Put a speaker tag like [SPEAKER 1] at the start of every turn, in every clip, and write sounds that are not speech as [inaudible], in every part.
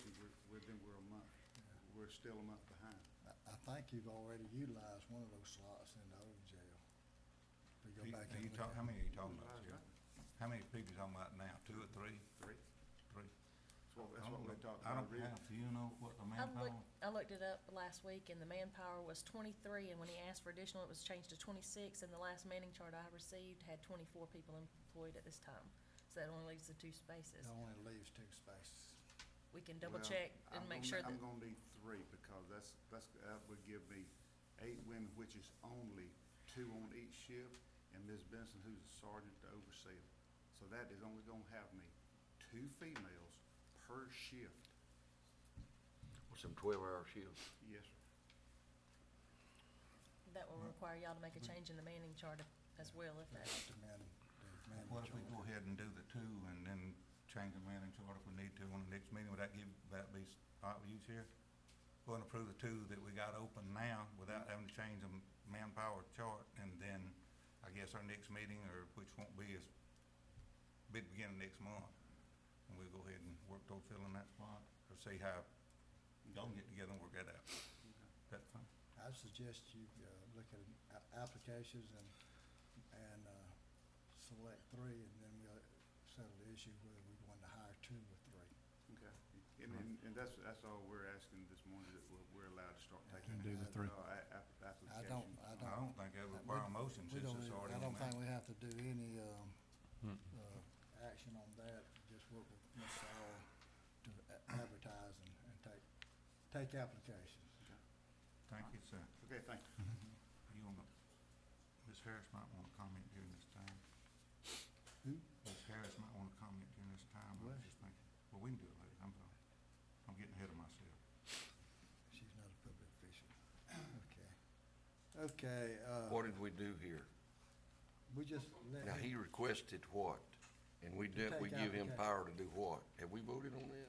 [SPEAKER 1] we've been, we're a month, we're still a month behind.
[SPEAKER 2] I, I think you've already utilized one of those slots in the old jail. If we
[SPEAKER 3] Are
[SPEAKER 2] go
[SPEAKER 3] you-
[SPEAKER 2] back
[SPEAKER 3] are
[SPEAKER 2] and
[SPEAKER 3] you
[SPEAKER 2] look
[SPEAKER 3] talk-
[SPEAKER 2] at-
[SPEAKER 3] how many are you talking about,
[SPEAKER 1] Right,
[SPEAKER 3] Sheriff?
[SPEAKER 1] right.
[SPEAKER 3] How many people you talking about now? Two or three?
[SPEAKER 1] Three.
[SPEAKER 3] Three?
[SPEAKER 1] That's what, that's
[SPEAKER 3] I
[SPEAKER 1] what
[SPEAKER 3] don't
[SPEAKER 1] we
[SPEAKER 3] know.
[SPEAKER 1] talked
[SPEAKER 3] I
[SPEAKER 1] about.
[SPEAKER 3] don't
[SPEAKER 1] originally.
[SPEAKER 3] have, do you know what the
[SPEAKER 4] I
[SPEAKER 3] manpower?
[SPEAKER 4] looked, I looked it up last week and the manpower was twenty-three and when he asked for additional, it was changed to twenty-six and the last manning chart I received had twenty-four people employed at this time. So that only leaves the two spaces.
[SPEAKER 2] That only leaves two spaces.
[SPEAKER 4] We can double
[SPEAKER 1] Well,
[SPEAKER 4] check
[SPEAKER 1] I'm
[SPEAKER 4] and make
[SPEAKER 1] gonna-
[SPEAKER 4] sure
[SPEAKER 1] I'm
[SPEAKER 4] that,
[SPEAKER 1] gonna need three, because that's, that's, that would give me eight women, which is only two on each shift, and Ms. Benson, who's a sergeant to oversee it. So that is only gonna have me two females per shift.
[SPEAKER 5] With some twelve-hour shifts.
[SPEAKER 1] Yes, sir.
[SPEAKER 4] that will require y'all to make a
[SPEAKER 2] Mm-hmm.
[SPEAKER 4] change in the manning chart as well if that,
[SPEAKER 2] The men, the men.
[SPEAKER 3] What if we go ahead and do the two and then change the manning chart if we need to on the next meeting? Would that give, that be all right with you, Sheriff? Go and approve the two that we got open now without having to change the manpower chart and then I guess our next meeting or which won't be as big beginning next month. And we'll go ahead and work toward filling that spot or see how y'all can get together and work that out. That's fine.
[SPEAKER 2] I suggest you uh, look at a- applications and, and uh, select three, and then we'll settle the issue whether we want to hire two or three.
[SPEAKER 1] Okay. And, and, and that's, that's all we're asking this morning, is that we're, we're allowed to start
[SPEAKER 2] I
[SPEAKER 1] taking.
[SPEAKER 2] can do the three.
[SPEAKER 1] uh, a- a-
[SPEAKER 2] I don't,
[SPEAKER 1] Applications.
[SPEAKER 2] I don't.
[SPEAKER 3] I don't think that would require a motion
[SPEAKER 2] Uh, We
[SPEAKER 3] since
[SPEAKER 2] don't
[SPEAKER 3] it's
[SPEAKER 2] even-
[SPEAKER 3] already
[SPEAKER 2] I
[SPEAKER 3] on
[SPEAKER 2] don't think
[SPEAKER 3] there.
[SPEAKER 2] we have to do any um, uh, action on that, just work with Ms. Saul to a- advertise and and take, take applications.
[SPEAKER 3] Thank you, sir.
[SPEAKER 1] Okay, thank you.
[SPEAKER 3] You want to, Ms. Harris might want to comment during this time.
[SPEAKER 2] Who?
[SPEAKER 3] Ms. Harris might want to comment during this time. I
[SPEAKER 2] Well-
[SPEAKER 3] was just thinking, well, we can do it later. I'm sorry. I'm getting ahead of myself.
[SPEAKER 2] She's not a public official. [coughs] Okay. Okay, uh,
[SPEAKER 5] What did we do here?
[SPEAKER 2] we just let.
[SPEAKER 5] Now, he requested what? And we did, we
[SPEAKER 2] take
[SPEAKER 5] give him
[SPEAKER 2] applica-
[SPEAKER 5] power to do what? Have we voted on that?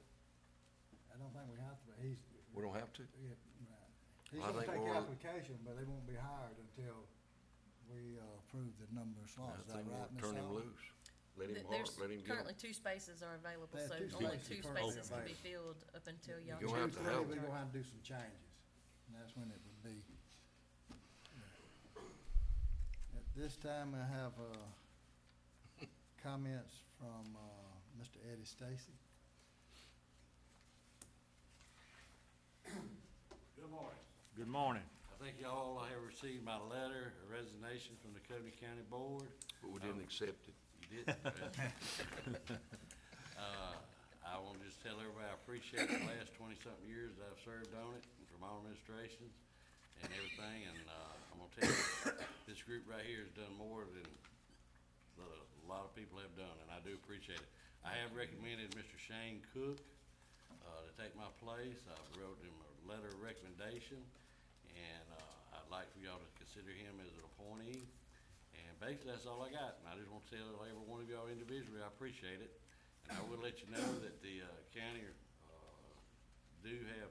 [SPEAKER 2] I don't think we have to, but he's.
[SPEAKER 5] We don't have to?
[SPEAKER 2] Yeah, right. He's
[SPEAKER 5] Well,
[SPEAKER 2] gonna
[SPEAKER 5] I think
[SPEAKER 2] take the
[SPEAKER 5] we're-
[SPEAKER 2] application, but they won't be hired until we uh, approve the number of
[SPEAKER 5] I
[SPEAKER 2] slots. Is that
[SPEAKER 5] think
[SPEAKER 2] right,
[SPEAKER 5] we'll
[SPEAKER 2] Ms.
[SPEAKER 5] turn him
[SPEAKER 2] Allen?
[SPEAKER 5] loose. Let him,
[SPEAKER 4] Th-
[SPEAKER 5] har-
[SPEAKER 4] there's
[SPEAKER 5] let him get
[SPEAKER 4] currently
[SPEAKER 5] 'em.
[SPEAKER 4] two spaces are available,
[SPEAKER 2] There are
[SPEAKER 4] so
[SPEAKER 2] two
[SPEAKER 4] only
[SPEAKER 2] spaces
[SPEAKER 4] two
[SPEAKER 2] currently
[SPEAKER 4] spaces can be
[SPEAKER 2] available.
[SPEAKER 4] filled up until
[SPEAKER 2] If
[SPEAKER 4] y'all.
[SPEAKER 5] You're
[SPEAKER 2] we
[SPEAKER 5] gonna have
[SPEAKER 4] change
[SPEAKER 5] to
[SPEAKER 4] the
[SPEAKER 2] approve,
[SPEAKER 5] help.
[SPEAKER 2] We're
[SPEAKER 4] chart.
[SPEAKER 2] gonna have to do some changes, and that's when it would be. At this time, I have uh, comments from uh, Mr. Eddie Stacy.
[SPEAKER 6] Good morning.
[SPEAKER 7] Good morning.
[SPEAKER 6] I think y'all have received my letter of resignation from the Covey County Board.
[SPEAKER 5] But we
[SPEAKER 4] Oh.
[SPEAKER 5] didn't accept it.
[SPEAKER 6] You didn't. Uh, I want to just tell everybody, I appreciate the last twenty-something years that I've served on it, and from all administrations and everything, and, uh, I'm gonna tell you, this group right here has done more than that a lot of people have done, and I do appreciate it. I have recommended Mr. Shane Cook, uh, to take my place. I wrote him a letter of recommendation, and, uh, I'd like for y'all to consider him as an appointee. And basically, that's all I got, and I just want to tell every one of y'all individually, I appreciate it. And I will let you know that the, uh, county, uh, do have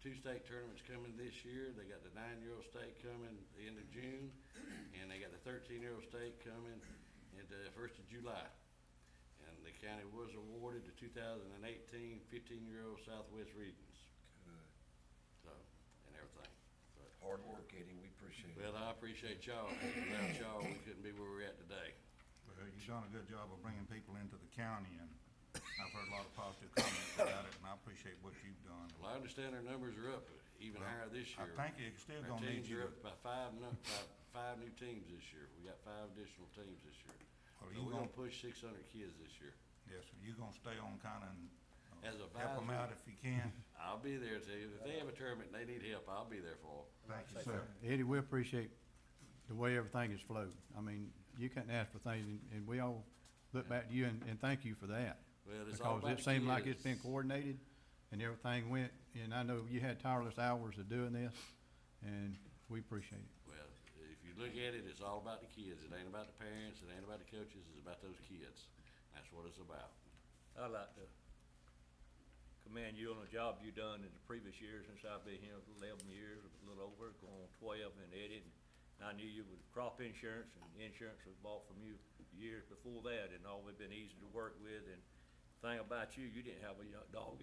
[SPEAKER 6] two state tournaments coming this year. They got the nine-year-old state coming the end of June, and they got the thirteen-year-old state coming at the first of July. And the county was awarded the 2018 15 fifteen-year-old Southwest Regions, so, and everything. But,
[SPEAKER 5] Hard work, Eddie, we appreciate it.
[SPEAKER 6] well, I appreciate y'all, 'cause without y'all, we couldn't be where we're at today.
[SPEAKER 3] Well, you've done a good job of bringing people into the county and I've heard a lot of positive comments about it and I appreciate what you've done.
[SPEAKER 6] Well, I understand our numbers are up even higher this
[SPEAKER 3] I
[SPEAKER 6] year.
[SPEAKER 3] think you're still
[SPEAKER 6] Our
[SPEAKER 3] gonna need
[SPEAKER 6] teams
[SPEAKER 3] you
[SPEAKER 6] are
[SPEAKER 3] to
[SPEAKER 6] up by five, nu- by five new teams this year. We got five additional teams this year. So
[SPEAKER 3] Well,
[SPEAKER 6] we're
[SPEAKER 3] you
[SPEAKER 6] gonna
[SPEAKER 3] gonna-
[SPEAKER 6] push six hundred kids this year.
[SPEAKER 3] Yes, sir. You gonna stay on kinda and uh,
[SPEAKER 6] As a
[SPEAKER 3] help them out
[SPEAKER 6] advisor.
[SPEAKER 3] if you
[SPEAKER 6] [laughs]
[SPEAKER 3] can?
[SPEAKER 6] I'll be there to, if they have a tournament and they need help, I'll be there for
[SPEAKER 3] Thank you, sir.
[SPEAKER 7] Eddie, we appreciate the way everything has flowed. I mean, you couldn't ask for things, and- and we all look back to you and, and thank you for that.
[SPEAKER 6] Well, it's all about
[SPEAKER 7] Because it seemed like
[SPEAKER 6] kids.
[SPEAKER 7] it's been coordinated and everything went, and I know you had tireless hours of doing this, and we appreciate it.
[SPEAKER 6] them. Well, if you look at it, it's all about the kids. It ain't about the parents, it ain't about the coaches, it's about those kids. That's what it's about.
[SPEAKER 8] I'd like to commend you on the job you done in the previous years since I've been here eleven years, a little over, going on twelve and Eddie. And I knew you with crop insurance and insurance was bought from you years before that and always been easy to work with. And thing about you, you didn't have a dog